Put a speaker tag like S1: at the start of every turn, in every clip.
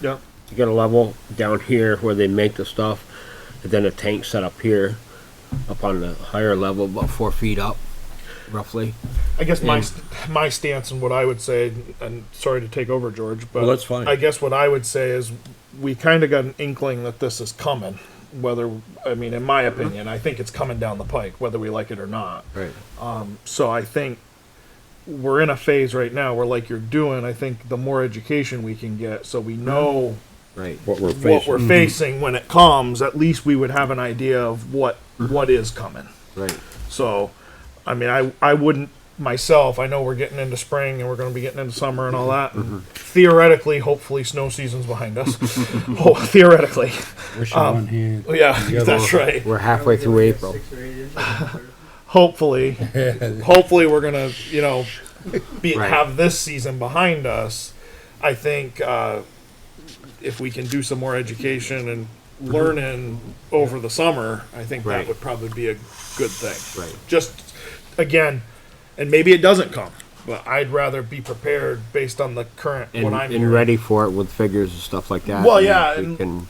S1: Yeah.
S2: You got a level down here where they make the stuff, and then a tank set up here, up on the higher level, about four feet up, roughly.
S1: I guess my st- my stance and what I would say, and sorry to take over, George, but
S3: Well, that's fine.
S1: I guess what I would say is we kind of got an inkling that this is coming. Whether I mean, in
S3: Mm-hmm.
S1: my opinion, I think it's coming down the pike, whether we like it or not.
S3: Right.
S1: So I think we're in a phase right now where, like you're doing, I think the more education we can get, so
S3: Mm-hmm.
S1: we know
S3: Right.
S2: What we're facing.
S1: what we're
S3: mm-hmm.
S1: facing when it comes, at least we would have an idea of what
S3: Mm-hmm.
S1: what is coming.
S3: Right.
S1: So, I mean, I, I wouldn't myself. I know we're getting into spring and we're going to be getting into summer and all that. And Theoretically, hopefully, snow season's behind us. oh, theoretically,
S4: Wish on one hand.
S1: yeah, that's right.
S2: We're halfway through April.
S1: Hopefully, hopefully, we're gonna you know be
S2: Right.
S1: have this season behind us. I think uh, if we can do some more education and learning over the summer, I think that
S2: Right.
S1: would probably be a good thing.
S2: Right.
S1: just again, and maybe it doesn't come, but I'd rather be prepared based on the current
S2: And,
S1: what I'm
S2: and
S1: hearing.
S2: ready for it with figures and stuff like that.
S1: Well,
S2: and
S1: yeah,
S2: we
S1: and-
S2: can-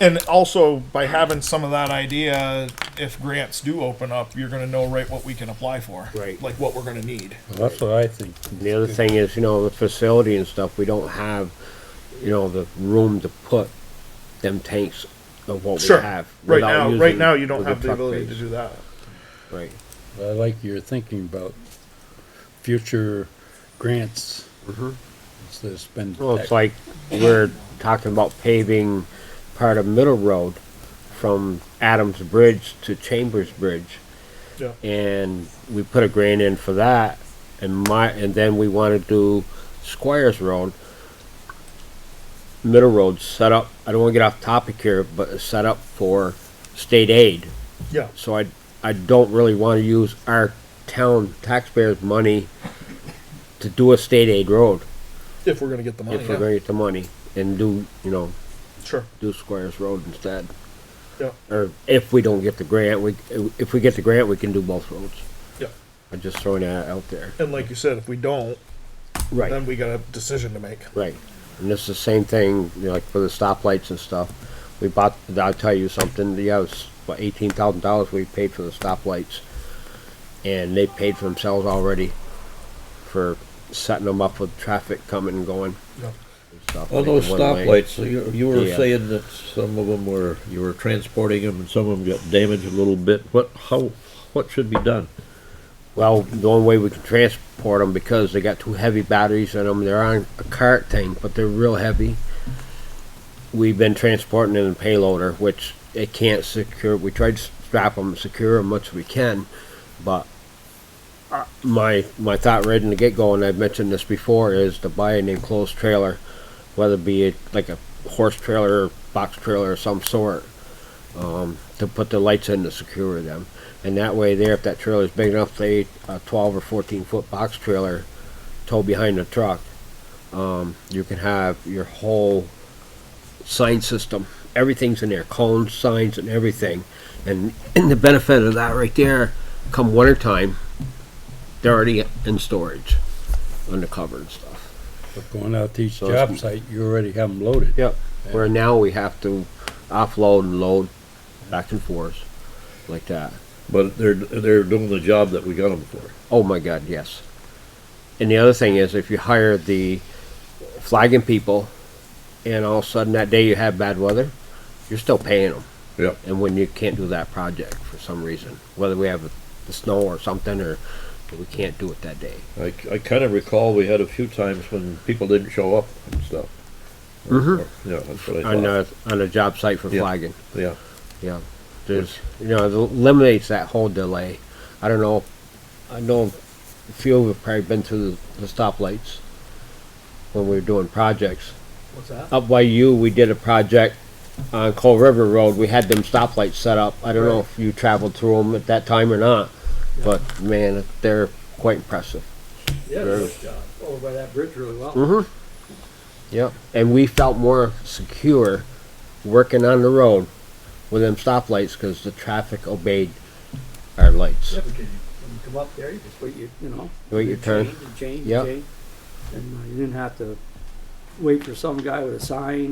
S1: And also by having some of that idea, if grants do open up, you're going to know right what we can apply for,
S2: Right.
S1: Like what we're going to need.
S3: That's what I think.
S2: The other thing is, you know, the facility and stuff, we don't have, you know, the room to put them tanks of what we
S1: Sure.
S2: have.
S1: Right
S2: without
S1: now, right
S2: using
S1: now you don't have the
S2: truck
S1: ability to
S2: base.
S1: do that.
S2: Right.
S3: I like your
S4: Thinking about future grants. So There's been.
S2: Mm-hmm. Well, it's like we're talking about paving part of Middle Road from Adams Bridge to Chambers Bridge.
S1: Yeah.
S2: And we put a grant in for that and my, and then we wanna do Squires Road. Middle Road set up, I don't wanna get off topic here, but it's set up for state aid.
S1: Yeah.
S2: So I, I don't really wanna use our town taxpayers' money to do a state aid road
S1: If we're going to get the money.
S2: if we're
S1: Oh, yeah.
S2: gonna get the money and do, you know,
S1: Sure.
S2: do Squires Road instead.
S1: Yeah.
S2: Or if we don't get the grant, we, if we get the grant, we can do both roads.
S1: Yeah.
S2: I'm just throwing that out there.
S1: And like you said, if we don't,
S2: Right,
S1: then we got a decision to make.
S2: right. And it's the same thing, you know, like for the stoplights and stuff. We bought, I'll tell you something, yeah, it was about eighteen thousand dollars we paid for the stoplights. And they paid for themselves already for setting them up with traffic coming and going.
S1: Yeah.
S2: and stuff,
S3: All
S2: like
S3: those
S2: the one lane.
S3: stoplights, you, you were
S2: Yeah.
S3: saying that some of them were, you were transporting them and some of them got damaged a little bit. What, how, what should be done?
S2: Well, the only way we can transport them because they got two heavy batteries in them. They're on a cart thing, but they're real heavy. We've been transporting in a payloader, which it can't secure. We tried to strap them, secure them much as we can, but uh, my my thought right in the get go, and I've mentioned this before, is to buy an enclosed trailer, whether it be like a horse trailer, or box trailer, or some sort, um, to put the lights in to secure them. And that way there, if that trailer's big enough, say a twelve or fourteen foot box trailer towed behind the truck, um, you can have your whole sign system, everything's in there, cones, signs and everything. And, and the benefit of that right there, come winter time, they're already in storage, under cover and stuff.
S4: But Going out to each
S2: So it's-
S4: job site, you already have them loaded.
S2: Yep. Where now we have to offload and load back and forth, like that.
S3: But they're, they're doing the job that we got them for.
S2: Oh my God, yes. And the other thing is, if you hire the flagging people, and all of a sudden that day you have bad weather, you're still paying them.
S3: Yep.
S2: And when you can't do that project for some reason, whether we have the snow or something, or we can't do it that day.
S3: I, I kind of recall we had a few times when people didn't show up and stuff.
S2: Mhm.
S3: Yeah, that's what I
S2: On
S3: thought.
S2: a on a job site for
S3: Yeah.
S2: flagging,
S3: Yeah,
S2: yeah. There's you know it eliminates that whole delay. I don't know. I know a few of you have probably been through the, the stoplights when we were doing projects.
S5: What's that?
S2: up by you, we did a project on Coal River Road. We had them stoplights set up. I don't know if you traveled through them at that time or not, but man, they're quite impressive.
S5: Yeah, nice job. Over by that bridge really well.
S2: Mm-hmm. Yep. And we felt more secure working on the road with them stoplights because the traffic obeyed our lights.
S5: Yeah, because you, when you come up there, you just wait your, you know.
S2: Wait your turn.
S5: Change, and change,
S2: Yep.
S5: and change. And uh, you didn't have to wait for some guy with a sign